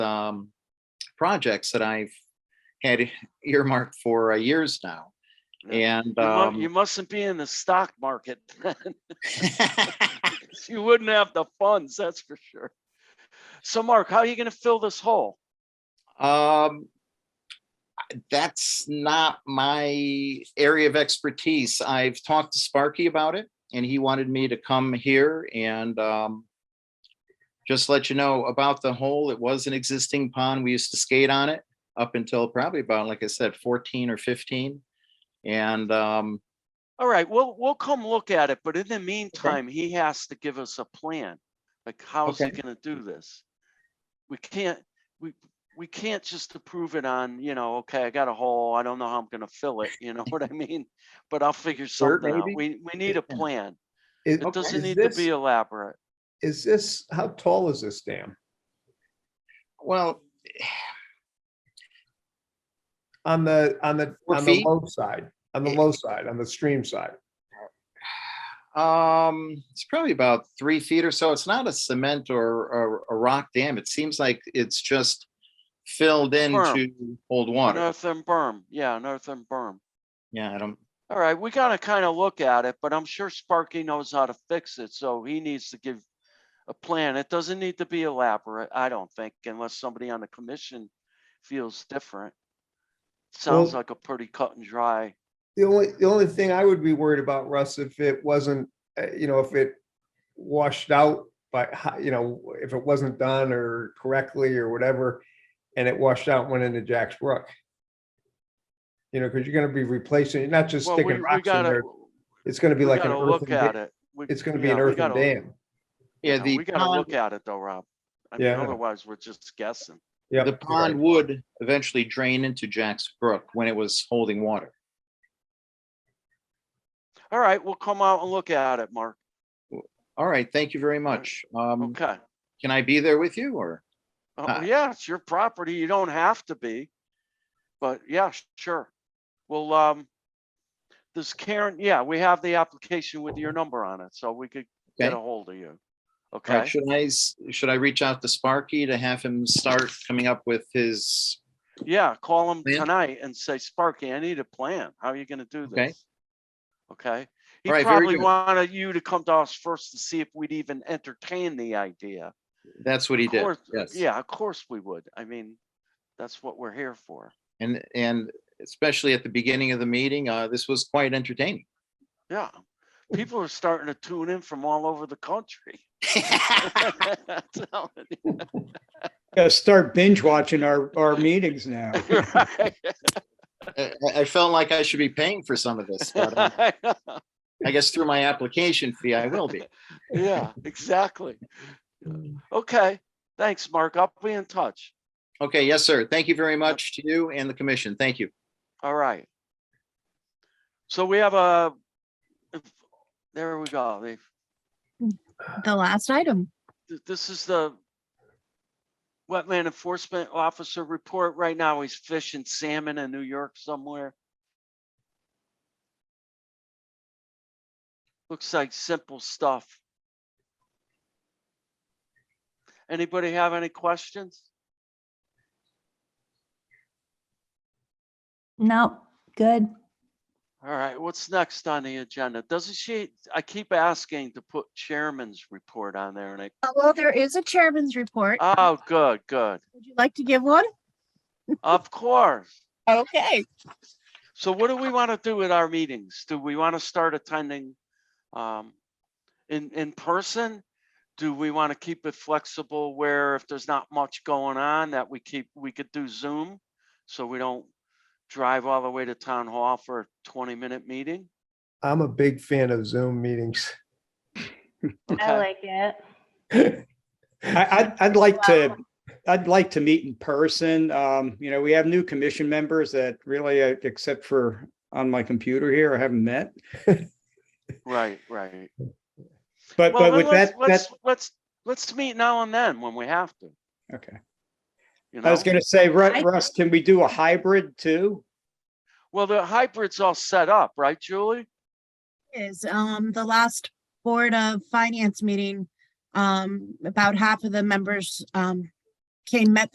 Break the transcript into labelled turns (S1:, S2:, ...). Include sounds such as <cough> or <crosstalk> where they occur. S1: um, projects that I've had <laughs> earmarked for uh, years now.
S2: Yeah.
S1: And,
S2: You mu-
S1: um,
S2: You mustn't be in the stock market. <laughs> You wouldn't have the funds, that's for sure. So Mark, how are you gonna fill this hole?
S1: <laughs> um, that's not my area of expertise. I've talked to Sparky about it and he wanted me to come here and, um, just let you know about the hole. It was an existing pond. We used to skate on it up until probably about, like I said, fourteen or fifteen. And, um,
S2: All right, we'll, we'll come look at it, but in the meantime, he has to give us a plan. Like, how's he gonna do this? We can't, we, we can't just approve it on, you know, okay, I got a hole, I don't know how I'm gonna fill it, <laughs> you know what I mean? But I'll figure something out.
S3: maybe?
S2: We, we need a
S3: Yeah.
S2: plan.
S3: Is,
S2: It doesn't
S3: is
S2: need to
S3: this-
S2: be elaborate.
S3: is this, how tall is this dam?
S1: well,
S3: On the, on the,
S1: Four
S3: on the
S1: feet?
S3: low side, on the
S1: It-
S3: low side, on the stream side.
S1: Um, it's probably about three feet or so. It's not a cement or, or a rock dam. It seems like it's just filled in
S2: Berm.
S1: to hold
S2: An
S1: water.
S2: earthen berm, yeah, an earthen berm.
S1: Yeah, I don't,
S2: All right, we gotta kind of look at it, but I'm sure Sparky knows how to fix it, so he needs to give a plan. It doesn't need to be elaborate, I don't think, unless somebody on the commission feels different. Sounds
S3: Well-
S2: like a pretty cut and dry.
S3: The only, the only thing I would be worried about, Russ, if it wasn't, uh, you know, if it washed out by, ho- you know, if it wasn't done or correctly or whatever, and it washed out, and went into Jack's Brook. You know, because you're gonna be replacing, not just
S2: Well, we,
S3: sticking
S2: we
S3: rocks in
S2: gotta,
S3: there. It's gonna
S2: we
S3: be like an
S2: gotta
S3: earthen,
S2: look at
S3: da-
S2: it. We-
S3: it's gonna be
S2: yeah,
S3: an
S2: we
S3: earthen
S2: gotta-
S3: dam.
S1: yeah,
S2: yeah,
S1: the
S2: We gotta
S1: pond,
S2: look at it though, Rob. I mean,
S3: Yeah.
S2: otherwise we're just guessing.
S3: Yeah.
S1: the pond would eventually drain into Jack's Brook when it was holding water.
S2: All right, we'll come out and look at it, Mark.
S1: All right, thank you very much.
S3: Mm.
S1: Um,
S2: Okay.
S1: can I be there with you or?
S2: Oh,
S1: Uh,
S2: yeah, it's your property. You don't have to be. But yeah, sh- sure. Well, um, this Karen, yeah, we have the application with your number on it, so we could get
S1: Okay.
S2: a hold of you.
S1: All right,
S2: Okay,
S1: uh, Should I, s- should I reach out to Sparky to have him start coming up with his,
S2: yeah, call him
S1: Plan?
S2: tonight and say, Sparky, I need a plan. How are you gonna do
S1: Okay.
S2: this? Okay, he
S1: All right, very
S2: probably
S1: good.
S2: wanted you to come to us first to see if we'd even entertain the idea.
S1: that's what he
S2: Of
S1: did.
S2: course-
S1: Yes.
S2: Yeah, of course we would. I mean, that's what we're here for.
S1: And, and especially at the beginning of the meeting, uh, this was quite entertaining.
S2: Yeah, people are starting to tune in from all over the country. <laughs> I'm telling you,
S4: Gotta start binge watching our, our meetings now.
S2: right?
S1: I, I- I felt like I should be paying for some of this, but uh,
S2: I know.
S1: I guess through my application fee, I will be.
S2: Yeah, <laughs> exactly. Okay, thanks, Mark. I'll be in touch.
S1: Okay, yes, sir. Thank you very much to you and the commission. Thank you.
S2: All right. So we have a, there we go. They-
S5: The last item.
S2: th- This is the wetland enforcement officer report. Right now, he's fishing salmon in New York somewhere. Looks like simple stuff. Anybody have any questions?
S5: No, good.
S2: All right, what's next on the agenda? Doesn't she, I keep asking to put chairman's report on there and I,
S5: Uh, Well, there is a chairman's report.
S2: oh, good, good.
S5: Would you like to give one?
S2: Of course.
S5: Okay.
S2: So what do we want to do at our meetings? Do we want to start attending um, in, in person? Do we want to keep it flexible where if there's not much going on that we keep, we could do Zoom? So we don't drive all the way to town hall for a 20 minute meeting?
S3: I'm a big fan of Zoom meetings.
S6: I
S2: Okay,
S6: like it.
S4: I, I'd, I'd like to, I'd like to meet in person. Um, you know, we have new commission members that really, uh, except for on my computer here, I haven't met.
S2: right, right.
S4: But,
S2: Well,
S4: but
S2: then
S4: with
S2: let's,
S4: that, that,
S2: let's, let's, let's meet now and then when we have to,
S4: okay.
S2: you
S4: I
S2: know?
S4: was gonna say, Ru-
S5: I-
S4: Russ, can we do a hybrid too?
S2: Well, the hybrid's all set up, right, Julie?
S5: Is, um, the last Board of Finance meeting, um, about half of the members, um, came, met